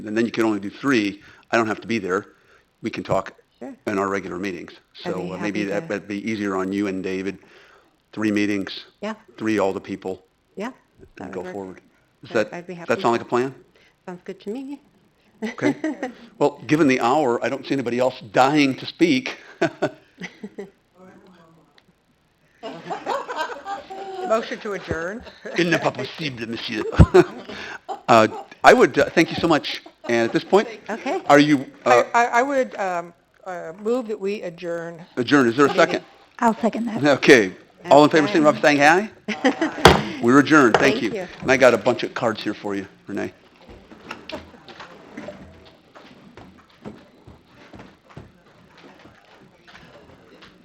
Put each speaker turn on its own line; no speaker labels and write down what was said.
and then you can only do three, I don't have to be there. We can talk
Sure.
in our regular meetings.
I'd be
So uh, maybe
happy
that,
to-
that'd be easier on you and David. Three meetings,
Yeah,
three all the people,
yeah. that
and
would
go
work.
forward. Does
That-
that,
I'd be
does that
happy.
sound like a plan?
Sounds good to me.
Okay. Well, given the hour, I don't see anybody else dying to speak.
Motion to adjourn.
Il n'est pas possible, monsieur. Uh, I would, uh, thank you so much. And at this point,
Okay.
are you uh,
I, I would um, uh, move that we adjourn.
adjourned? Is there a second?
I'll second that.
Okay. All in favor, signify by saying aye. We're adjourned. Thank
Thank
you.
you.
And I got a bunch of cards here for you, Renee.